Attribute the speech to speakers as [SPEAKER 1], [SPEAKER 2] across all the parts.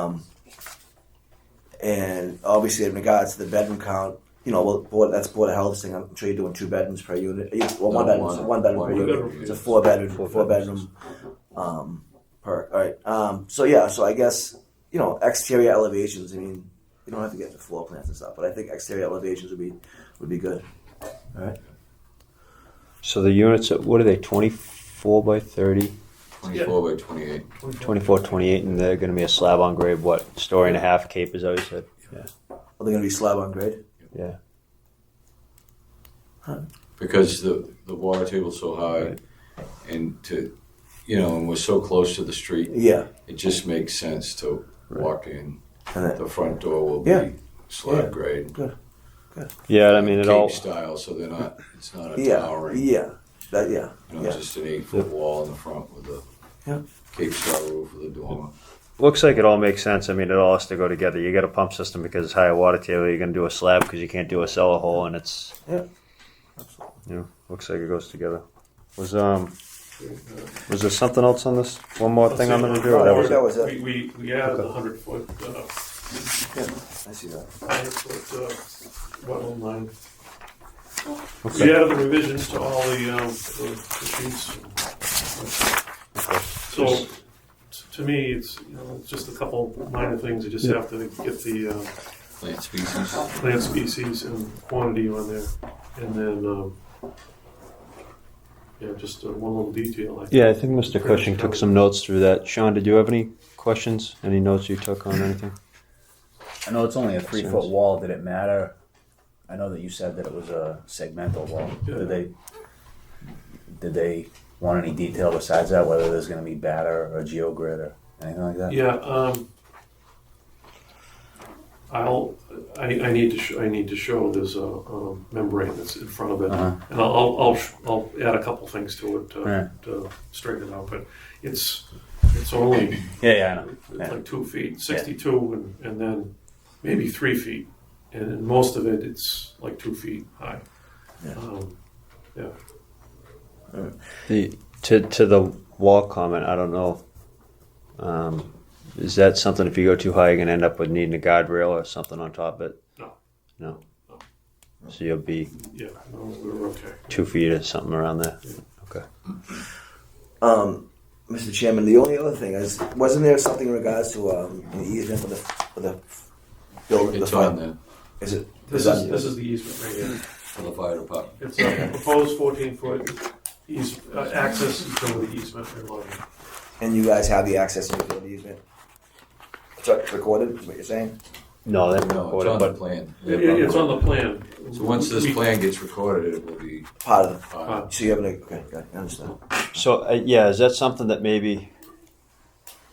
[SPEAKER 1] Um, And obviously, in regards to the bedroom count, you know, well, board, that's board of health thing. I'm sure you're doing two bedrooms per unit. Yeah, Well, one
[SPEAKER 2] No,
[SPEAKER 1] bedroom,
[SPEAKER 2] one.
[SPEAKER 1] one bedroom
[SPEAKER 2] One
[SPEAKER 1] per
[SPEAKER 3] bedroom.
[SPEAKER 1] unit. It's a four bedroom, four bedroom, um, per, all right. Um, so yeah, so I guess, you know, exterior elevations, I mean, you don't have to get the floor plans and stuff, but I think exterior elevations would be, would be good. All right.
[SPEAKER 4] So the units, are, what are they, 24 by 30,
[SPEAKER 2] 24 by 28.
[SPEAKER 4] 24, 28, and they're going to be a slab on grade, what, story and a half cape, is that what you said? Yeah.
[SPEAKER 1] Are they going to be slab on grade?
[SPEAKER 4] Yeah.
[SPEAKER 2] Because the, the water table's so high
[SPEAKER 4] Right.
[SPEAKER 2] and to, you know, and we're so close to the street,
[SPEAKER 1] Yeah.
[SPEAKER 2] it just makes sense to walk in.
[SPEAKER 1] And then,
[SPEAKER 2] The front door will
[SPEAKER 1] Yeah.
[SPEAKER 2] be
[SPEAKER 1] Yeah.
[SPEAKER 2] slab grade.
[SPEAKER 4] Yeah, I mean, it
[SPEAKER 2] Cape
[SPEAKER 4] all.
[SPEAKER 2] style, so they're not, it's not a
[SPEAKER 1] yeah.
[SPEAKER 2] towering,
[SPEAKER 1] Yeah. That, yeah.
[SPEAKER 2] you know,
[SPEAKER 1] Yeah.
[SPEAKER 2] just an eight foot wall in the front with a
[SPEAKER 1] Yeah.
[SPEAKER 2] Cape style roof with a dormer.
[SPEAKER 4] Looks like it all makes sense. I mean, it all has to go together. You got a pump system because it's higher water table. You're going to do a slab because you can't do a cellar hole, and it's
[SPEAKER 1] Yeah.
[SPEAKER 4] you know looks like it goes together. Was um was there something else on this? One more thing I'm going to do. Or that was
[SPEAKER 1] that
[SPEAKER 4] it?
[SPEAKER 1] was it.
[SPEAKER 3] We, we, we added the hundred foot, uh,
[SPEAKER 1] I see that.
[SPEAKER 3] hundred foot, uh, wetland line. We
[SPEAKER 4] Okay.
[SPEAKER 3] added the revisions to all the, um, the the sheets. So, to me, it's, you know, it's just a couple minor things, you just have to get the, uh,
[SPEAKER 2] Plant species.
[SPEAKER 3] plant species and quantity on there, and then, um, yeah, just uh, one little detail. I think.
[SPEAKER 4] Yeah, I think Mr. Cushing took some notes through that. Sean, did you have any questions? Any notes you took on anything?
[SPEAKER 5] I know it's only a three
[SPEAKER 4] Seems-
[SPEAKER 5] foot wall. Did it matter? I know that you said that it was a segmental wall.
[SPEAKER 3] Yeah.
[SPEAKER 5] Did they did they want any detail besides that? Whether there's going to be batter or geogrid or anything like that?
[SPEAKER 3] Yeah, um, I'll, I, I need to, sh- I need to show there's a, um membrane that's in front of it,
[SPEAKER 5] Uh-huh.
[SPEAKER 3] and I'll, I'll, I'll, sh- I'll add a couple things to it
[SPEAKER 5] Yeah.
[SPEAKER 3] to, to straighten it out, but it's, it's only
[SPEAKER 5] yeah, yeah, I know.
[SPEAKER 3] it's
[SPEAKER 5] Yeah.
[SPEAKER 3] like two feet, sixty-two, and, and then maybe three feet, and in most of it, it's like two feet high.
[SPEAKER 1] Yeah.
[SPEAKER 3] Um, Yeah,
[SPEAKER 4] The, to to the wall comment, I don't know. Um, is that something? If you go too high, you're going to end up with needing a guardrail or something on top of it.
[SPEAKER 3] No.
[SPEAKER 4] No. So you'll be
[SPEAKER 3] yeah, no, we're okay.
[SPEAKER 4] two feet or something around there.
[SPEAKER 1] Um, Mr. Chairman, the only other thing is, wasn't there something in regards to um, an easement for the for the building?
[SPEAKER 2] It's
[SPEAKER 1] the
[SPEAKER 2] on
[SPEAKER 1] fire-
[SPEAKER 2] there
[SPEAKER 1] Is it?
[SPEAKER 3] This is, this is the easement right here.
[SPEAKER 2] for the fire department.
[SPEAKER 3] It's a proposed fourteen foot eas- uh, access utility easement for loading.
[SPEAKER 1] And you guys have the access to the easement. It's like recorded. Is what you're saying?
[SPEAKER 4] No, they
[SPEAKER 2] No, it's
[SPEAKER 4] recorded,
[SPEAKER 2] on the
[SPEAKER 4] but
[SPEAKER 2] plan.
[SPEAKER 3] It- it- It's on the plan.
[SPEAKER 2] So once this
[SPEAKER 3] We-
[SPEAKER 2] plan gets recorded, it will be.
[SPEAKER 1] Part of.
[SPEAKER 2] uh,
[SPEAKER 1] The, so you have an okay. Got it, I understand.
[SPEAKER 4] so uh, yeah, is that something that maybe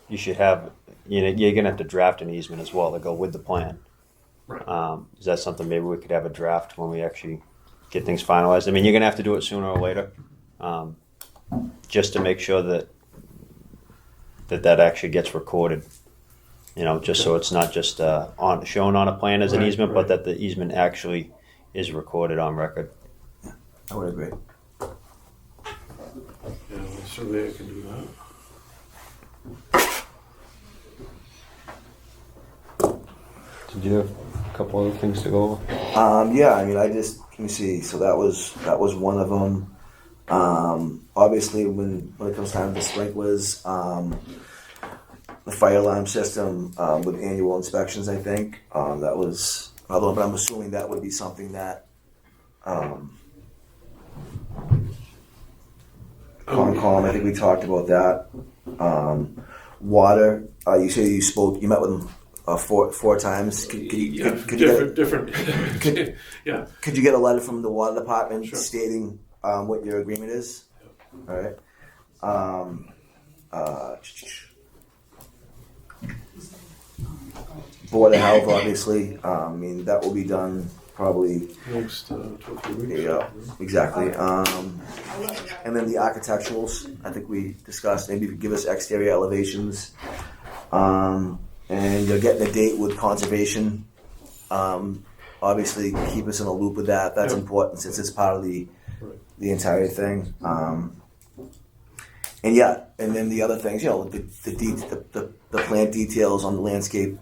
[SPEAKER 4] you should have? You know, you're going to have to draft an easement as well to go with the plan.
[SPEAKER 3] Right.
[SPEAKER 4] Um, is that something maybe we could have a draft when we actually get things finalized? I mean, you're going to have to do it sooner or later, um, just to make sure that that that actually gets recorded. You know, just so it's not just uh, on shown on a plan as an
[SPEAKER 3] Right,
[SPEAKER 4] easement,
[SPEAKER 3] right.
[SPEAKER 4] but that the easement actually is recorded on record.
[SPEAKER 1] I would agree.
[SPEAKER 3] Yeah, the surveyor can do that.
[SPEAKER 4] Did you have a couple other things to go over?
[SPEAKER 1] Um, yeah, I mean, I just let me see. So that was that was one of them. Um, obviously, when when it comes time to sprinklers, um, the fire alarm system um, with annual inspections, I think um, that was another one. But I'm assuming that would be something that um, Concom. I think we talked about that. Um, water. Uh, you say you spoke. You met with them uh, four four times. Could, could you,
[SPEAKER 3] Yeah,
[SPEAKER 1] could, could you get-
[SPEAKER 3] different, different. Yeah,
[SPEAKER 1] could you get a letter from the water department
[SPEAKER 3] Sure.
[SPEAKER 1] stating um, what your agreement is? All right. Um, uh, Board of Health, obviously. Um, I mean, that will be done probably
[SPEAKER 3] next, uh, two or three weeks.
[SPEAKER 1] Yeah. exactly. Um, and then the architecturals. I think we discussed. Maybe you could give us exterior elevations. Um, and you're getting a date with conservation. Um, obviously, keep us in a loop with that. That's
[SPEAKER 3] Yeah.
[SPEAKER 1] important since it's part of the
[SPEAKER 3] Right.
[SPEAKER 1] the entire thing. Um, and yeah, and then the other things, you know, the the, de- the, the the plant details on the landscape